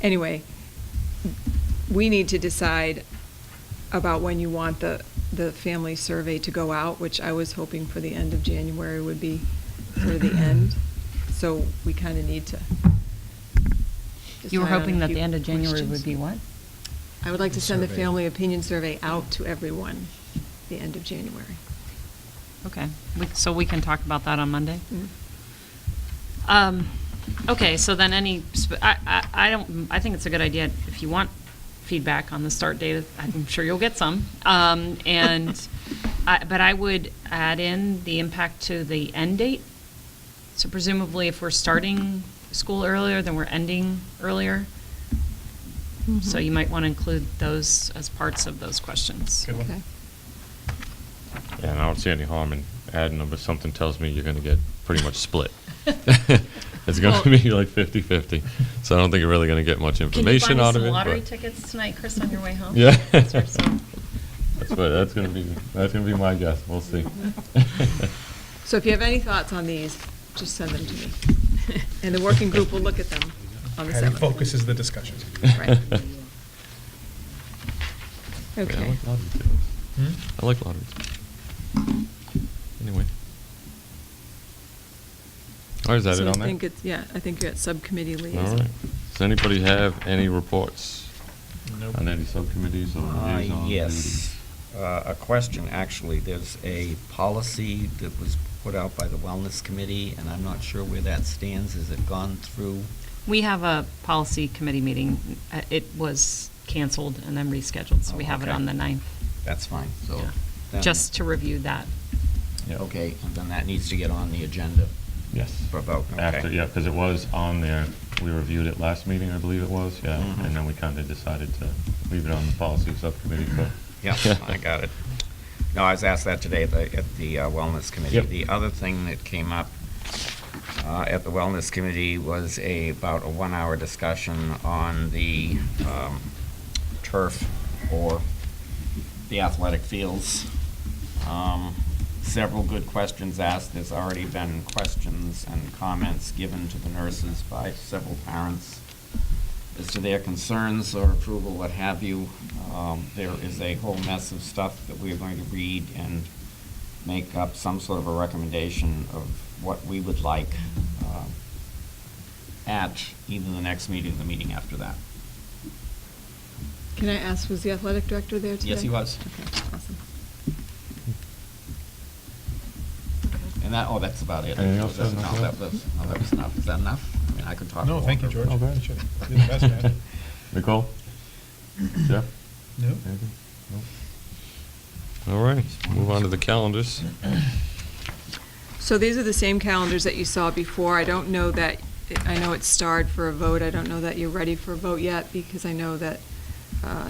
anyway, we need to decide about when you want the, the family survey to go out, which I was hoping for the end of January would be sort of the end. So we kind of need to. You were decide on a hoping that few the end of January questions. would be what? I would like to send the Survey. family opinion survey out to everyone the end of January. Okay, we- so we can talk about that on Monday? Mm. Um, okay, so then any, sp- I, I, I don't, I think it's a good idea, if you want feedback on the start date, I'm sure you'll get some. Um, and, I, but I would add in the impact to the end date. So presumably if we're starting school earlier, then we're ending earlier. Mm-hmm. So you might want to include those as parts of those questions. Good one. Okay. Yeah, and I don't see any harm in adding them, but something tells me you're going to get pretty much split. It's going to Well- be like 50-50, so I don't think you're really going to get much Can you find information me out of some it. lottery but- tickets tonight, Chris, on your way home? Yeah. That's your son. That's what, that's going to be, that's going to be my guess, we'll see. So if you have any thoughts on these, just send them to me. And the working group will look at them on the Patty 7th. focuses the discussion. Right. Yeah, I Okay. like lottery tickets. Hmm? I like lotteries. Anyway. All right, is that So it I on that? think it's- Yeah, I think you're at subcommittee liaison. All right. Does anybody have any reports Nope. on any subcommittees or Uh, liaison duties? Yes. Uh, A question, actually. There's a policy that was put out by the Wellness Committee, and I'm not sure where that stands. Has it gone through? We have a policy committee meeting. Uh, It was canceled and then rescheduled, so we Oh, have it okay. on the 9th. That's fine, so. Yeah. then- Just to review that. Yeah. Okay, and then that needs to get on the agenda. Yes. For vote, okay. After, yeah, because it was on there, we reviewed it last meeting, I believe it was, yeah, Mhm. and then we kind of decided to leave it on the policy subcommittee for. Yeah, I got it. No, I was asked that today at the, at the uh, Wellness Committee. Yep. The other thing that came up uh, at the Wellness Committee was a, about a one-hour discussion on the um, turf or the athletic fields. Um, Several good questions asked. There's already been questions and comments given to the nurses by several parents as to their concerns or approval, what have you. Um, There is a whole mess of stuff that we're going to read and make up some sort of a recommendation of what we would like um, at either the next meeting or the meeting after that. Can I ask, was the athletic director there today? Yes, he was. Okay, awesome. And that, oh, that's about it. Anything else, That's Adam? enough. That was, no, that was enough. Is that enough? I mean, I could talk. No, thank you, longer. George. You should- You're the best, man. Nicole? Jeff? No? Anything? No? All right, move on to the calendars. So these are the same calendars that you saw before. I don't know that, I know it's starred for a vote. I don't know that you're ready for a vote yet because I know that uh,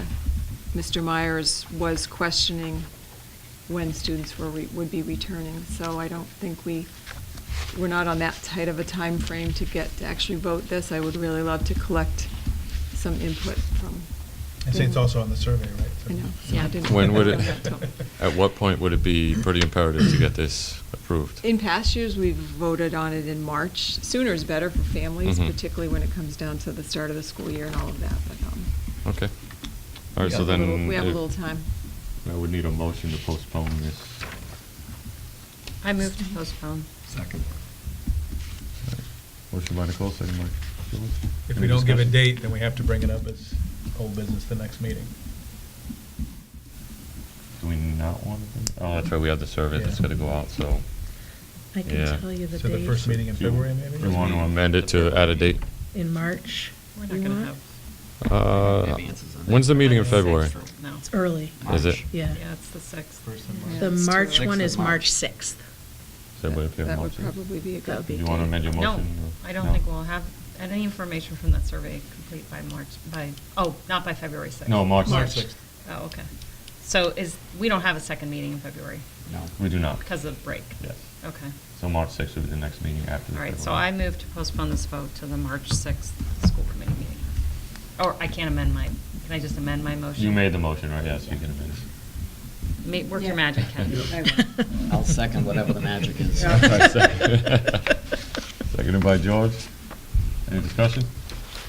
Mr. Myers was questioning when students were, re- would be returning. So I don't think we, we're not on that tight of a time frame to get, to actually vote this. I would really love to collect some input from. I say it's also on the survey, right? I know. Yeah. I didn't- When would it- At At what point would it be pretty imperative to get this approved? In past years, we've voted on it in March. Sooner is better for families, Mhm. particularly when it comes down to the start of the school year and all of that, but, um. Okay. All right, we so have a little- then. We have a if- little time. I would need a motion to postpone this. I move to postpone. Second. Motion by Nicole, second by George. If we Any don't give a discussion? date, then we have to bring it up as old business the next meeting. Do we not want to? Oh, that's right, we have the survey that's Yeah. gonna go out, so. I Yeah. can tell you the So the first date meeting in Do you- February, maybe? We want to amend it to add a date. in March. We're You not going to want? have. Uh, Advances on that. When's the meeting in Sixth, February? No. It's early, Is it? March. yeah. Yeah, it's the 6th. First of The Yeah, it's too March early. one Sixth is of March. March 6th. Does everybody have a That would motion? probably be a That would good. be Do you want to amend your No, motion? I don't think we'll have any information from that survey complete by March, by, oh, not by February 6th. No, March March March. 6th. Oh, okay. So is, we don't have a second meeting in February No. We do not. because of break? Yes. Okay. So March 6th would be the next meeting after the. All right, so February. I move to postpone this vote to the March 6th school committee meeting. Or I can't amend my, can I just amend my motion? You made the motion, right? Yes, you can amend it. Ma- Work your magic, Ken. I I'll second whatever the magic is. Seconded by George. Any discussion?